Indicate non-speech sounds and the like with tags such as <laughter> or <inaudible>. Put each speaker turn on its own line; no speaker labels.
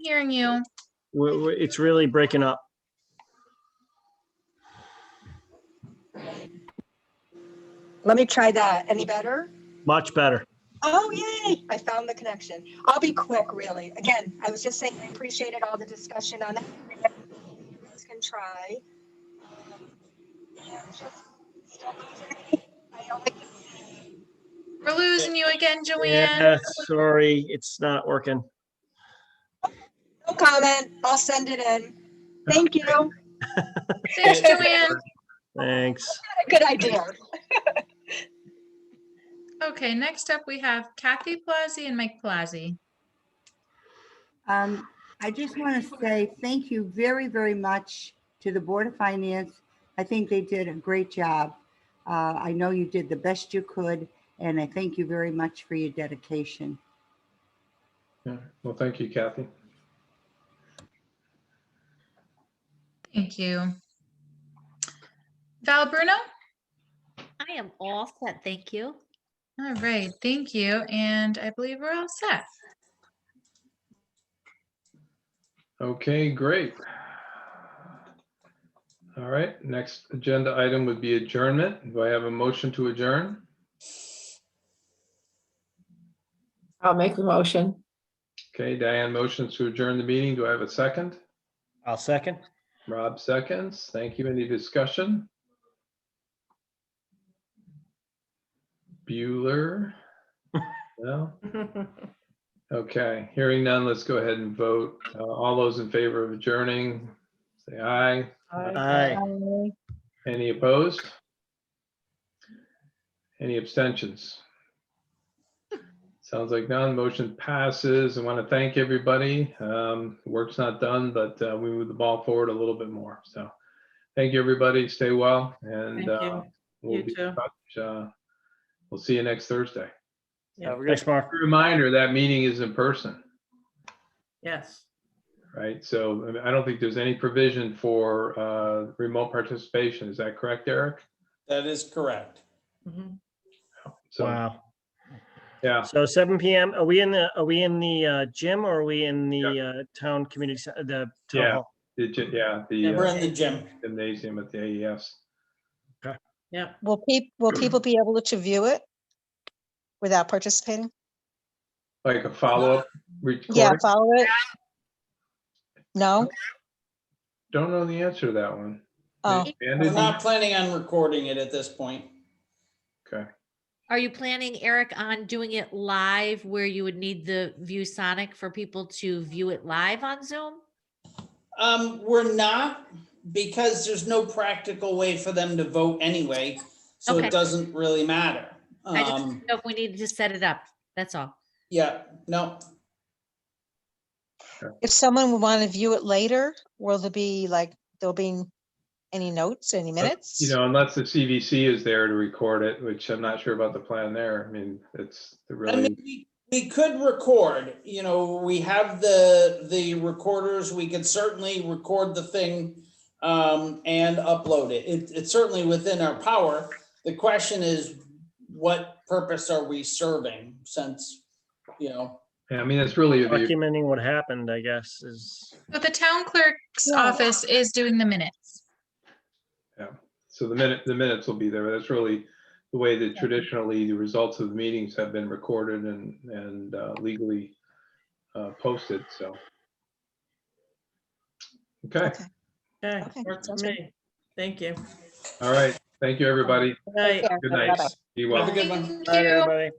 hearing you.
We're, we're- it's really breaking up.
Let me try that. Any better?
Much better.
Oh, yay! I found the connection. I'll be quick, really. Again, I was just saying I appreciated all the discussion on that. You guys can try. I don't like
We're losing you again,
Yeah,
Joanne.
sorry, it's not working.
No comment. I'll send it in. Thank you. Not
Thanks, Joanne.
Thanks.
a Good idea.
Okay, next up, we have Kathy Plazzi and Mike Plazzi.
Um, I just want to say thank you very, very much to the Board of Finance. I think they did a great job. Uh, I know you did the best you could, and I thank you very much for your dedication.
Yeah, well, thank you, Kathy.
Thank you. Val Bruno?
I am all set, thank you.
All right, thank you. And I believe we're all set.
Okay, great. All right, next agenda item would be adjournment. Do I have a motion to adjourn?
I'll make the <laughs> motion.
Okay, Diane motions to adjourn the meeting. Do I have a second?
I'll second.
Rob seconds. Thank you. Any discussion? Bueller? No? Okay, hearing none, let's go ahead and vote. Uh, All those in favor of adjourning, say aye.
Aye.
Any opposed? Any abstentions? Sounds like none. Motion passes. I want to thank everybody. Um, Work's not done, but uh, we moved the ball forward a little bit more. So thank you, everybody. Stay well and
Thank you.
uh, we'll
You
be in
too.
touch. Uh, We'll see you next Thursday.
Yeah.
Thanks, Mark.
Reminder, that meeting is in person,
Yes.
right? So I mean, I don't think there's any provision for uh, remote participation. Is that correct, Eric?
That is correct.
Mhm.
So,
Wow.
yeah.
So seven PM, are we in the, are we in the uh, gym or are we in the uh, town community, ce- the town
Yeah.
hall?
The gy- Yeah,
Yeah,
the
We're
uh,
in the gym.
gymnasium at the E AES.
Yep.
Will peop, will people be able to view it without participating?
Like a follow-up
Yeah,
recording?
follow it? No?
Don't know the answer to that one.
Oh.
They
We're
expanded it?
not planning on recording it at this point.
Okay,
Are you planning, Eric, on doing it live where you would need the View Sonic for people to view it live on Zoom?
Um, we're not because there's no practical way for them to vote anyway, so
Okay.
it doesn't really matter.
I just
Um,
didn't know if we needed to set it up, that's all.
yeah, no,
If someone would want to view it later, will there be like, there'll be any notes, any minutes?
Uh, you know, unless the CVC is there to record it, which I'm not sure about the plan there. I mean, it's it
I
really,
mean, we- we could record, you know, we have the, the recorders, we could certainly record the thing um, and upload it. It, it's certainly within our power. The question is, what purpose are we serving since, you know,
I mean, it's really, the-
Documenting what happened, I guess, is,
So the town clerk's
Yeah.
office is doing the minutes.
so the minute, the minutes will be there. but That's really the way that traditionally the results of the meetings have been recorded and, and uh, legally uh, posted, so. Okay,
Okay.
Okay,
Okay,
works for
sounds good.
me. Thank you.
all right. Thank you, everybody.
Good night.
Good night. Be well.
Have a good one.
Thank
All right,
you.
everybody.